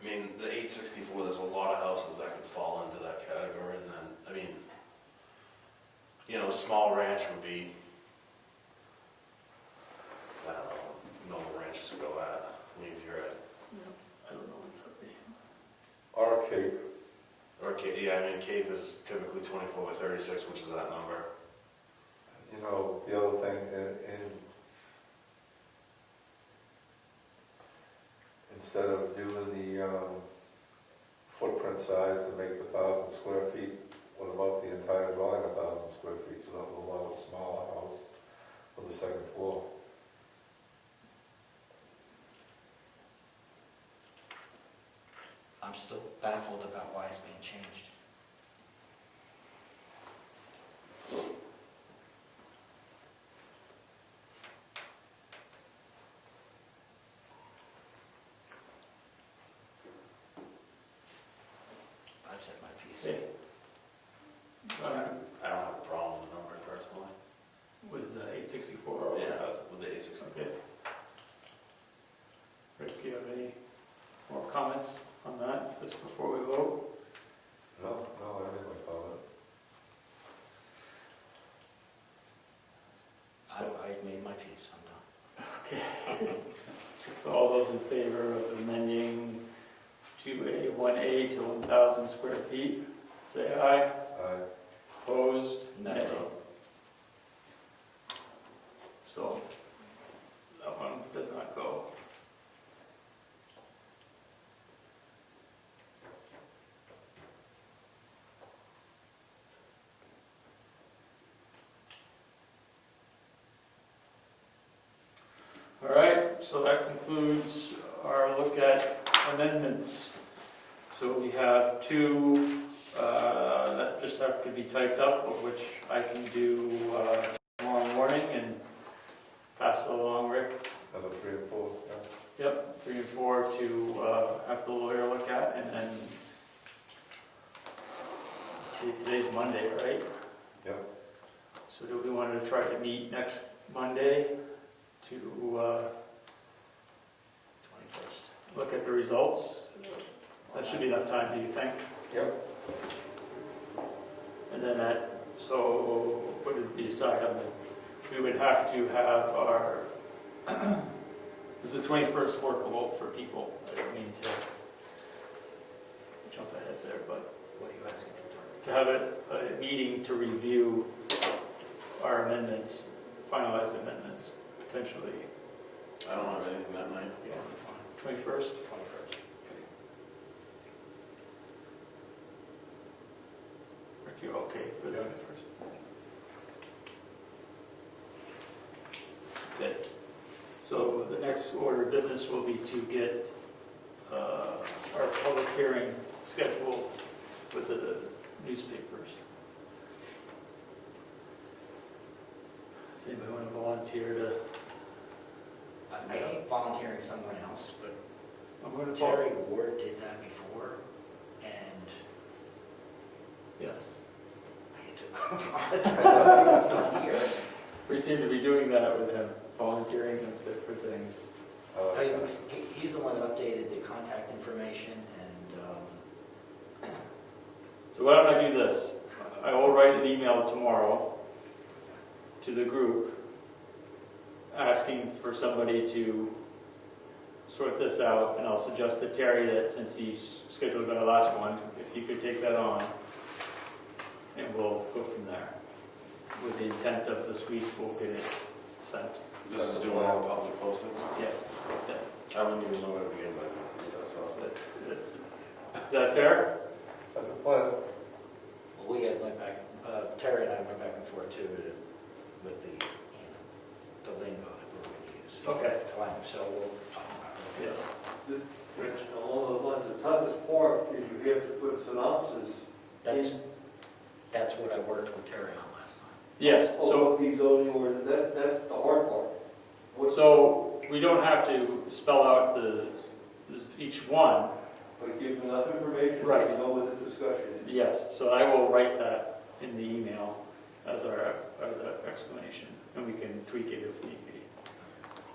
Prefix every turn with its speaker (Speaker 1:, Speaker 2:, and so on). Speaker 1: I mean, the eight sixty-four, there's a lot of houses that could fall into that category, and then, I mean, you know, a small ranch would be, I don't know, normal ranches would go at, I mean, if you're at, I don't know what that'd be.
Speaker 2: Or a cape,
Speaker 1: Or, ca- yeah, I mean, Cape is typically twenty-four by thirty-six, which is that number.
Speaker 2: you know, the other thing, and, and instead of doing the, um, footprint size to make the thousand square feet, what about the entire dwelling a thousand square feet, so that will allow a smaller house for the second floor?
Speaker 3: I'm still baffled about why it's being changed. I've said my piece.
Speaker 4: Uh,
Speaker 1: I don't have a problem with the number personally.
Speaker 4: With the eight sixty-four, or
Speaker 1: Yeah, with the eight sixty-four.
Speaker 4: Okay. Rick, do you have any more comments on that, just before we vote?
Speaker 2: No, no, I didn't like all that.
Speaker 3: I, I've made my piece, I'm done.
Speaker 4: So all those in favor of amending two A, one A to one thousand square feet, say aye.
Speaker 2: Aye.
Speaker 4: Opposed?
Speaker 3: No.
Speaker 4: So, that one does not go. All right, so that concludes our look at amendments. So we have two uh, that just have to be typed up, of which I can do uh, tomorrow morning and pass it along, Rick.
Speaker 2: Number three and four, yeah.
Speaker 4: Yep, three and four to uh, have the lawyer look at, and then, see, today's Monday, right?
Speaker 2: Yep.
Speaker 4: So do we want to try to meet next Monday to uh,
Speaker 3: Twenty-first.
Speaker 4: look at the results? That should be enough time, do you think?
Speaker 2: Yep.
Speaker 4: And then that, so what did we decide on? We would have to have our, is the 21st workable for people? I don't mean to jump ahead there, but
Speaker 3: What are you asking for?
Speaker 4: to have a, a meeting to review our amendments, finalized amendments, potentially
Speaker 1: I don't have anything that night.
Speaker 3: Yeah, fine,
Speaker 4: 21st?
Speaker 3: twenty-first.
Speaker 4: Rick, you okay for the 21st? Okay. So the next order of business will be to get uh, our public hearing scheduled with the newspapers. Does anybody want to volunteer to?
Speaker 3: I I hate volunteering someone else, but
Speaker 4: I'm going to volunteer.
Speaker 3: Terry Ward did that before, and
Speaker 4: Yes.
Speaker 3: I had to volunteer someone here.
Speaker 4: We seem to be doing that with him, volunteering him for- for things.
Speaker 2: I like
Speaker 3: I mean,
Speaker 2: that.
Speaker 3: he's- he- He's the one that updated the contact information, and um,
Speaker 4: So why don't I do this? I will write an email tomorrow to the group asking for somebody to sort this out, and I'll suggest to Terry that since he scheduled our last one, if he could take that on, and we'll go from there. With the intent of this week, we'll get it sent.
Speaker 1: This is doing all public posting.
Speaker 4: Yes.
Speaker 1: I wouldn't even know where to begin, but that's all.
Speaker 4: That- that's- Is that fair?
Speaker 2: That's a plan.
Speaker 3: we had went back, uh, Terry and I went back and forth too to- with the, you know, the lingo that we're going to use.
Speaker 4: Okay.
Speaker 3: At the time, So we'll talk about it.
Speaker 4: Yes.
Speaker 5: Along those lines, the toughest part is you have to put synopsis
Speaker 3: That's, that's what I worked with Terry on last time.
Speaker 4: Yes, so.
Speaker 5: of these zoning ordinance, that's, that's the hard part. What-
Speaker 4: So we don't have to spell out the, each one?
Speaker 5: But give enough information so
Speaker 4: Right.
Speaker 5: you know what the discussion is.
Speaker 4: Yes, so I will write that in the email as our, as our explanation, and we can tweak it if need be.